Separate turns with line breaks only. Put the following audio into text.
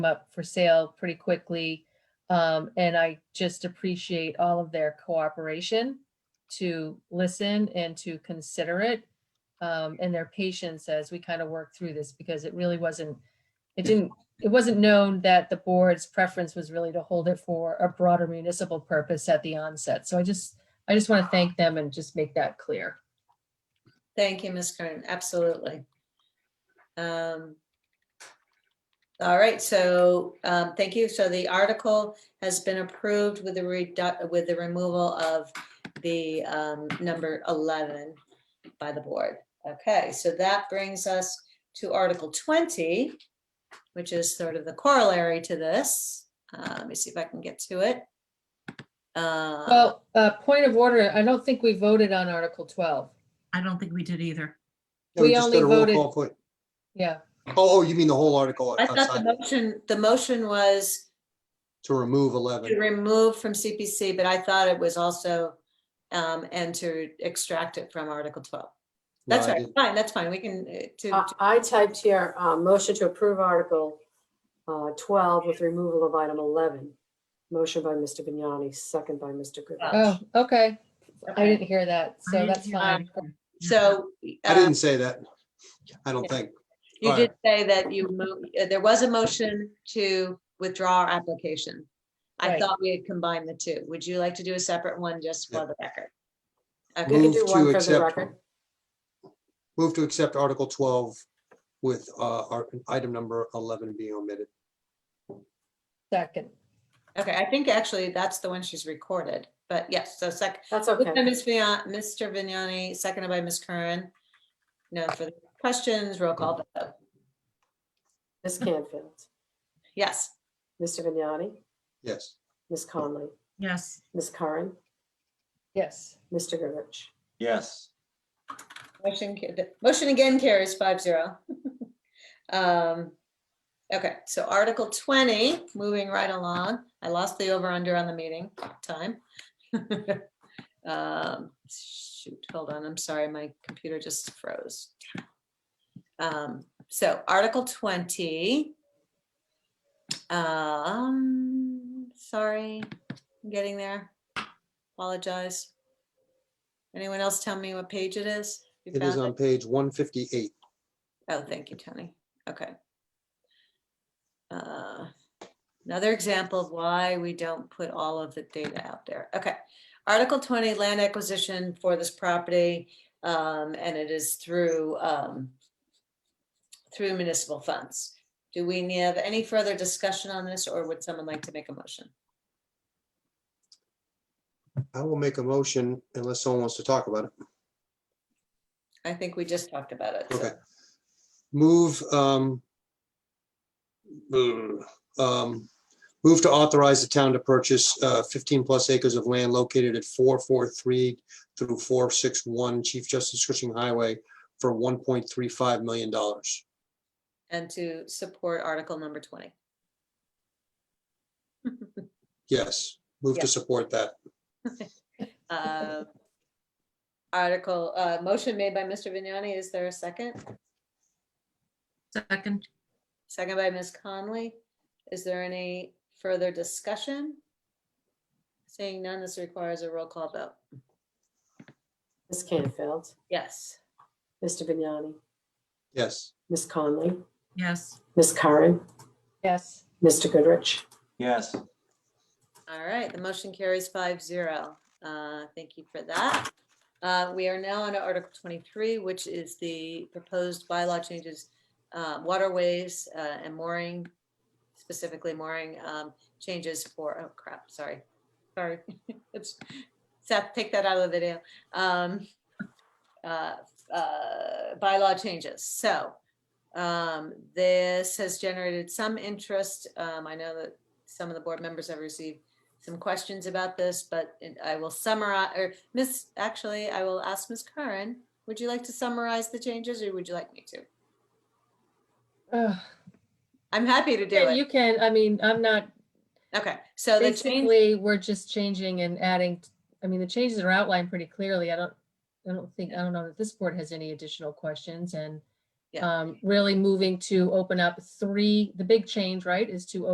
up for sale pretty quickly. Um, and I just appreciate all of their cooperation to listen and to consider it. Um, and their patience as we kind of work through this because it really wasn't, it didn't, it wasn't known that the board's preference was really to hold it for a broader municipal purpose at the onset. So I just, I just want to thank them and just make that clear.
Thank you, Ms. Kern, absolutely. Um, All right, so um, thank you. So the article has been approved with the redu- with the removal of the um, number 11 by the board. Okay, so that brings us to Article 20, which is sort of the corollary to this. Uh, Let me see if I can get to it. Uh,
Well, uh, point of order, I don't think we voted on Article twelve.
I don't think we did either.
We
just
only
did a roll
voted-
call for-
Yeah,
Oh, oh, you mean the whole article
I thought the
outside,
motion, the motion was
to remove
to
11?
remove from CPC, but I thought it was also, um, and to extract it from Article twelve.
No,
That's
I
right,
didn't.
fine, that's fine, we can, uh, to,
I I typed here, uh, motion to approve Article uh, 12 with removal of item 11. Motion by Mr. Vignani, second by Mr.
oh,
Goodrich.
okay. I
Okay. um,
didn't hear that, so that's fine.
so.
I
uh,
didn't say that. I don't
Yeah.
think.
You
all
did say that you moved, there was a motion to withdraw our application. I
Right.
thought we had combined the two. Would you like to do a separate one just for the record?
We can
Okay,
Move
do
to
one for the
accept.
record.
Move to accept Article 12 with uh, our- item number 11 being omitted.
Second,
okay, I think actually that's the one she's recorded, but yes, so second,
That's
Moved by
okay.
Ms. Vigna- Mr. Vignani, seconded by Ms. Curran. No further questions, roll call vote.
Ms. Canfield,
Yes,
Mr. Vignani,
Yes.
Ms. Conley,
Yes,
Ms. Curran,
yes.
Mr. Goodrich.
Yes,
motion, ca- the- motion again carries five zero. Um, Okay, so Article 20, moving right along. I lost the over under on the meeting time. Um, Shoot, hold on, I'm sorry, my computer just froze. Um, So Article 20. Um, sorry, I'm getting there. Apologize. Anyone else tell me what page it is? You
It is
found
on page 158.
Oh, thank you, Tony. Okay. Uh, Another example of why we don't put all of the data out there. Okay. Article 20, land acquisition for this property, um, and it is through, um, through municipal funds. Do we need- have any further discussion on this, or would someone like to make a motion?
I will make a motion unless someone wants to talk about it.
I think we just talked about it. so-
Okay. Move, um, um, move to authorize the town to purchase uh, 15 plus acres of land located at 443 through 461 Chief Justice Cushing Highway for $1.35 million.
And to support Article number 20.
Yes, move
Yeah.
to support that.
Uh, Article, uh, motion made by Mr. Vignani. Is there a second?
second,
Second by Ms. Conley. Is there any further discussion? Seeing none, this requires a roll call vote.
Ms. Canfield,
Yes.
Mr. Vignani,
Yes,
Ms. Conley,
yes,
Ms. Curran,
Yes,
Mr. Goodrich.
yes,
All right, the motion carries five zero. Uh, Thank you for that. Uh, We are now on to Article 23, which is the proposed bylaw changes, uh, waterways uh, and mooring, specifically mooring um, changes for, oh crap, sorry. Sorry. It's- Seth, take that out of the video. Um, uh, uh, Bylaw changes. So um, this has generated some interest. Um, I know that some of the board members have received some questions about this, but it- I will summarize, or Miss, actually, I will ask Miss Curran, would you like to summarize the changes or would you like me to?
Ugh.
I'm happy to do
Yeah, you
it.
can, I mean, I'm not,
Okay, so the change,
basically, we're just changing and adding, I mean, the changes are outlined pretty clearly. I don't, I don't think, I don't know that this board has any additional questions and
Yeah.
Um, really moving to open up three, the big change, right, is to